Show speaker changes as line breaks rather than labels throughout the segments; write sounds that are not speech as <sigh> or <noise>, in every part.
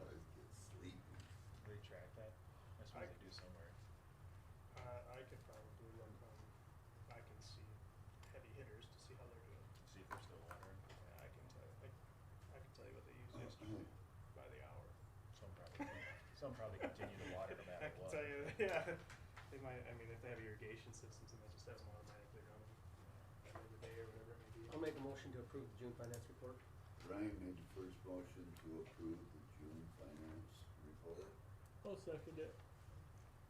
Uh,
<laughs>
<laughs>
Some probably continue to water no matter
I can
what.
tell you, <laughs> yeah, they might, I mean, if they have irrigation systems and they just have them automatically running every day or whatever it may be.
I'll make a motion to approve the June finance report.
Ryan made the first motion to approve the June finance report.
I'll second it.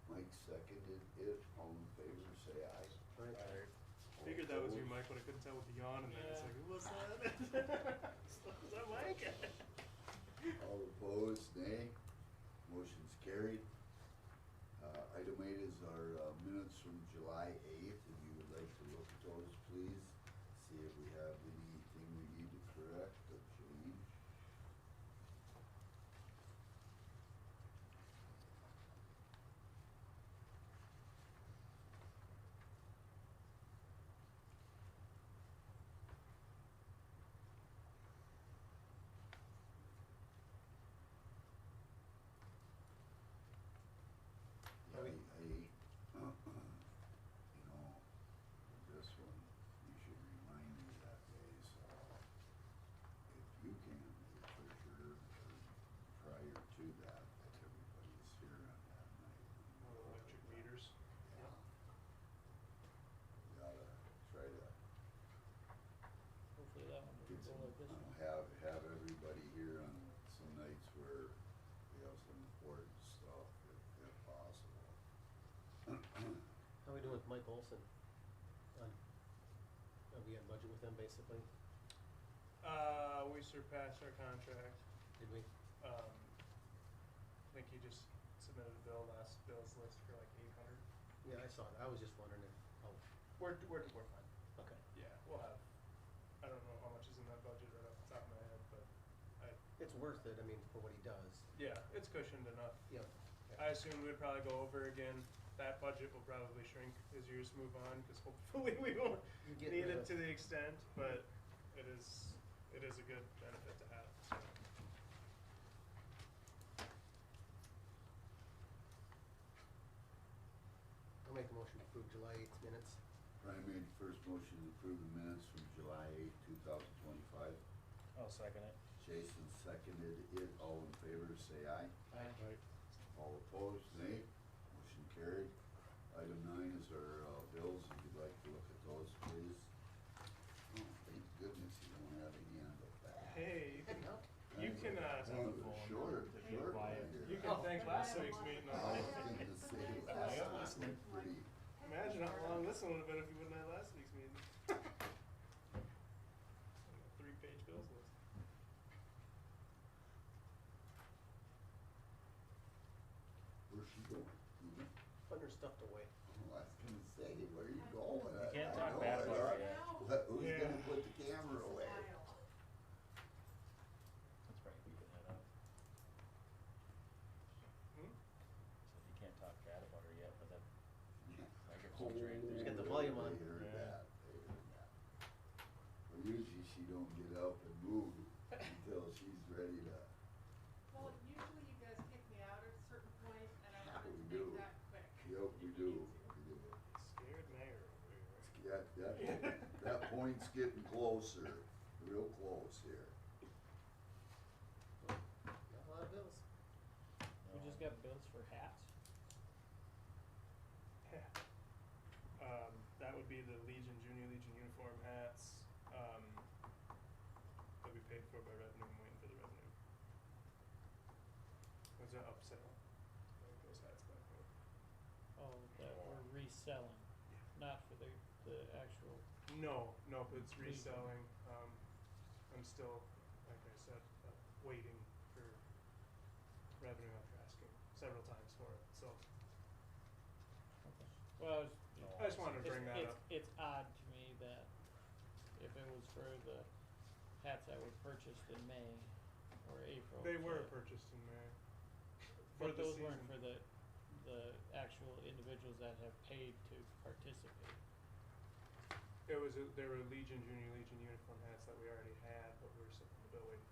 Mike seconded it. All in favor, say aye.
Aye.
All
Figured that was
opposed?
you, Mike, but I couldn't tell with the yawn and then it's
Yeah.
like, what's that? <laughs> Is that Mike?
All opposed, nay. Motion's carried. Uh, Item eight is our uh, minutes from July eighth. If you would like to look at those, please, see if we have anything we need to correct or change. Yeah,
Are
I,
we-
I, you know, this one, you should remind me that day, so if you can, for sure, or prior to that, that everybody's here on that night.
Or Electric meters.
Yeah. Gotta try to
Hopefully that one
get
will
some,
go like this one.
have, have everybody here on some nights where we have some important stuff, if, if possible. <clears throat>
How we doing with Mike Olson? On, are we on budget with him basically?
Uh, we surpassed our contract.
Did we?
Um, I think he just submitted a bill last, bill's list for like eight hundred.
Yeah, I saw it. I was just wondering if, oh,
We're, we're, we're fine.
okay.
Yeah, we'll have, I don't know how much is in that budget right off the top of my head, but I,
It's worth it, I mean, for what he does.
yeah, it's cushioned enough.
Yeah.
I assume we'd probably go over again. That budget will probably shrink as years move on, cause hopefully <laughs> we won't
You get
need
rid
it
of-
to the extent, but it is, it is a good benefit to have, so.
I'll make a motion to approve July eighth minutes. <laughs>
Brian made the first motion to approve the minutes from July eighth, two thousand twenty-five.
I'll second it.
Jason seconded it. All in favor, say aye.
Aye.
All opposed, nay. Motion carried. Item nine is our uh, bills. If you'd like to look at those, please. Oh, thank goodness you don't have any on the back.
Hey, you
<laughs>
can, you can, uh,
Oh, they're Short, short.
Quiet.
one here.
you can thank last week's meeting.
I was thinking the same last
I'm
time.
listening.
Pretty-
Imagine how long this one would have been if you wouldn't have had last week's meeting. <laughs> Three page bills list.
Where's she going? Mhm.
Putting her stuff away.
Oh, I was gonna say, where are you going?
You can't
I
talk
know,
bad
I
about
know.
her yet.
What, who's
Yeah.
gonna put the camera away?
That's right, we can head up.
Hmm?
Said you can't talk bad about her yet, but that
Oh,
microphone's right
Just
there.
get the volume on.
They heard
Yeah.
that, they heard that. But usually she don't get up and move until she's ready to,
Well, usually you guys kick me out at a certain point, and I
Yeah,
don't
we
make
do.
that quick.
yep, we
if
do,
you
we
need to.
do.
Scared mayor over here.
That, that, that point's getting closer, real close here.
Got a lot of bills.
We just got bills for hats.
<laughs> Um, that would be the Legion, Junior Legion uniform hats, um, that we paid for by revenue, I'm waiting for the revenue. Was it upsell? Like those hats back there.
Oh, that we're reselling, not for the, the actual,
No, no, but it's
Legion.
reselling, um, I'm still, like I said, uh, waiting for revenue after asking several times for it, so
well, it's.
I just wanted to
it's-
bring that
it's-
up.
It's odd to me that if it was for the hats that were purchased in May or April.
They
to-
were purchased in May.
But
the
those
season.
weren't for the, the actual individuals that have paid to participate.
It was a, there were Legion Junior Legion uniform hats that we already had, but we were supp-